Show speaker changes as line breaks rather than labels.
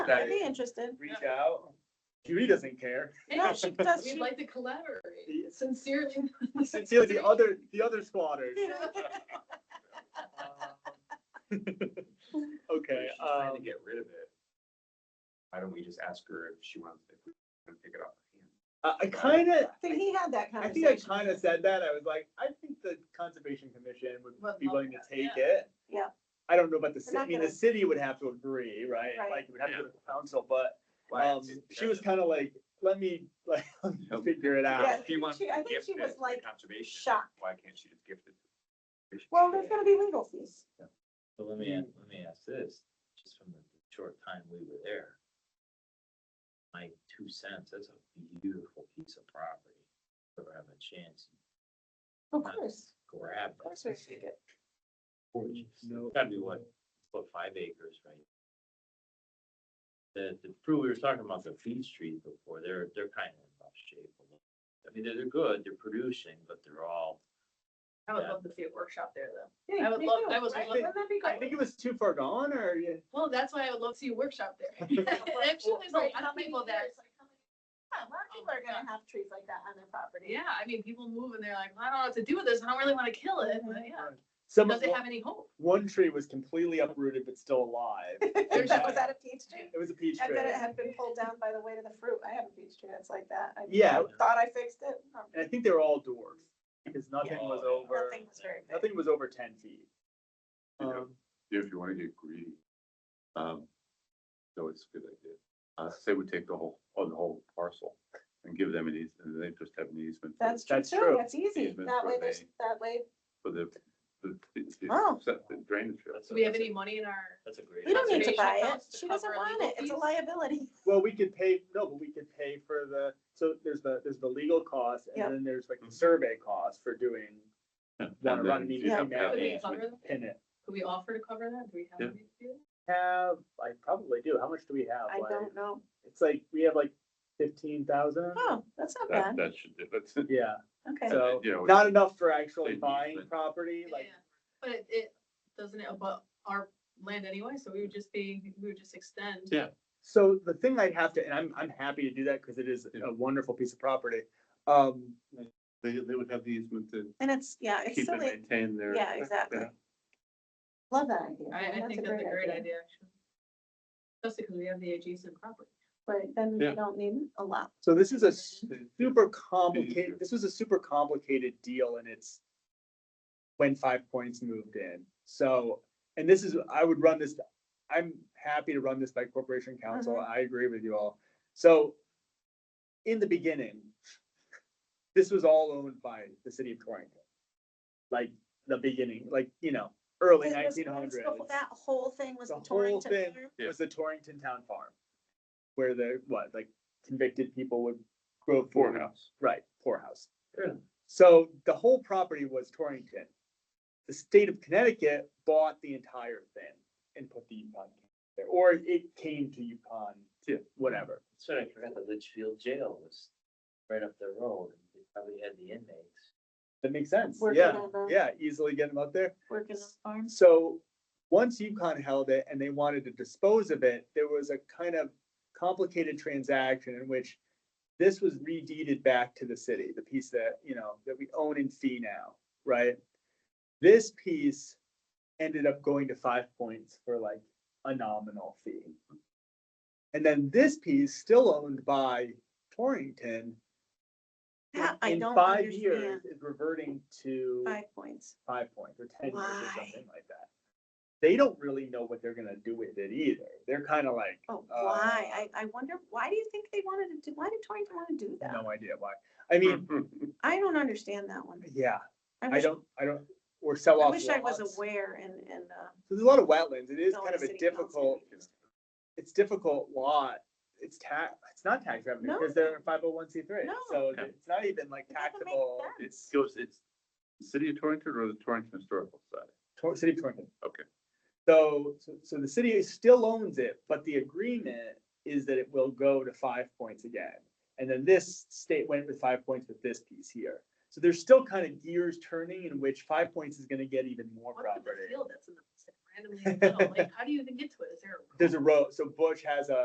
that
I'd be interested.
reach out. Judy doesn't care.
No, she does.
We'd
She-
like to collaborate sincerely.
Sincerely, the other, the other squatters.
If
Okay,
she's trying to
um,
get rid of it. Why don't we just ask her if she wants, if we can pick it up?
I, I kinda,
I think he had that
I think I
conversation.
kinda said that. I was like, I think the conservation commission would
Would
be
love
willing to
that,
take
yeah.
it.
Yeah.
I don't know about the
They're
city, I
not
mean, the
gonna-
city would have to agree, right?
Right.
Like, it would have to
Yeah.
go to council, but,
Why?
um, she was kinda like, let me, like, let me
Nope.
figure it
Yeah.
out.
If you want
she-
to
I think
gift
she
it
was,
to
like,
conservation,
shocked.
why can't she just gift it? to conservation?
Well, there's gonna be legal fees.
But let me, a- let me ask this, just from the short time we were there. My two cents, that's a beautiful piece of property. If I have a chance,
Of course,
grab
of course we
that.
should get.
Gorgeous.
No.
Gotta be what, what, five acres, right? The, the crew, we were talking about the beech trees before, they're, they're kind of in rough shape. a little. I mean, they're, they're good, they're producing, but they're all,
I would
Yeah.
love to see a workshop there though.
Yeah,
I would
me
love-
too,
I would
right?
love-
Wouldn't that be
I
great?
think it was too far gone, or, yeah,
Well, that's why I would love to see a workshop there. And I'm sure there's a
Right,
lot
how
of
many
people that,
years, like, how many- Yeah, a lot of people are gonna have trees like that on their property.
yeah, I mean, people move and they're like, I don't know what to do with this. I don't really want to kill it, but yeah.
some,
Does
of-
it have any hope?
one tree was completely uprooted but still alive.
Was that was that a peach tree?
It was a peach
And
tree.
then it had been pulled down by the weight of the fruit. I have a peach tree that's like that. I
Yeah.
Thought I fixed it. No,
And I think they were all dwarfs because nothing
Yeah.
was over,
Nothing was very big.
nothing was over ten feet.
You know,
Um,
if you wanna get greedy. Um, no, it's a good idea. Uh, say we take the whole, on the whole parcel and give them an easement, and they just have an easement. for-
That's true
That's
too.
true.
That's easy.
Easements
That way
were
there's,
made.
that way,
For the, the, the-
Oh.
the set- the drainage field.
that's.
Do
a-
we have
that's a-
any money in our?
That's a great.
we don't need to
Conservation
buy it.
accounts to
She doesn't
cover
want
legal
it. It's a
fees?
liability.
Well, we could pay, no, but we could pay for the, so there's the, there's the legal cost
Yeah.
and then there's like
Mm-hmm.
the survey cost for doing. Wanna
And
run
then
the
you have to
email.
have
Could
an
we
Yeah.
cover
easement.
that?
Pin it.
Could we offer to cover that? Do we have?
Yeah.
money to do that?
Have, I probably do. How much do we
I
have? Like,
don't know.
it's like, we have like fifteen thousand.
Oh, that's not bad.
That, that should, do- that's,
Yeah,
Okay.
so
you know,
not enough for actually
They need
buying
it.
property, like,
Yeah, But it, it, doesn't it abut our land anyway? So we would just be, we would just extend.
Yeah.
So the thing I'd have to, and I'm, I'm happy to do that because it is a wonderful piece of property. Um,
they, they would have the easement to
And it's, yeah, it's
keep and
silly.
maintain their.
Yeah, exactly. Love that idea.
I, I think that's a great idea, actually. Especially because we have the adjacent property.
Right, then
Yeah.
you don't need a lot.
so this is a
Mhm.
super complicated, this was a super complicated deal and it's when Five Points moved in. So, and this is, I would run this, I'm happy to run this by corporation council.
Uh-huh.
I agree with you all. So in the beginning, this was all owned by the city of Torrington. Like the beginning, like, you know, early
It was-
nineteen
it was
hundreds.
the whole- That whole thing was
The
the
whole
Torrington.
thing
farm.
Yeah.
was the Torrington Town Farm. Where the, what, like convicted people would grow food,
Poorhouse.
right, poorhouse.
Yeah.
So the whole property was Torrington. The state of Connecticut bought the entire thing and put the Yukon County there, or it came to Yukon,
Yeah.
whatever.
So I forgot the Litchfield Jail was right up the road, and they probably had the inmates.
That makes sense,
Working
yeah,
on the-
yeah, easily get them up there.
Working on farms.
So, once UConn held it and they wanted to dispose of it, there was a kind of complicated transaction in which this was redeeded back to the city, the piece that, you know, that we own in fee now, right? This piece ended up going to Five Points for like a nominal fee. And then this piece still owned by Torrington.
That I
in
don't
five years
understand.
Is reverting to
Five points.
five points or ten years or
Why?
something like that. They don't really know what they're gonna do with it either. They're kind of like,
Oh,
Uh,
why? I, I wonder, why do you think they wanted to do, why did Torrington want to do that?
no idea why. I mean,
I don't understand that one.
yeah,
Mm. I
I
wish,
don't, I don't, or sell
I
off
wish I was
lots.
aware and, and, uh.
So There's a lot of wetlands. It is
going
kind of
to
a
city council
difficult,
meetings.
it's difficult lot. It's tax, it's not tax revenue because they're five oh one C three.
No.
So
Yeah.
it's not even like
It doesn't make
taxable.
sense.
It goes, it's the city of Torrington or the Torrington Historical Society?
Tor- City of Torrington.
Okay.
So, so- so the city still owns it, but the agreement is that it will go to five points again. And then this state went with five points with this piece here. So there's still kind of gears turning in which five points is gonna get even more
What's with the
property.
field that's in the, randomly in the middle? Like, how do you even get to it? Is there a? road?
There's a road, so Bush has a,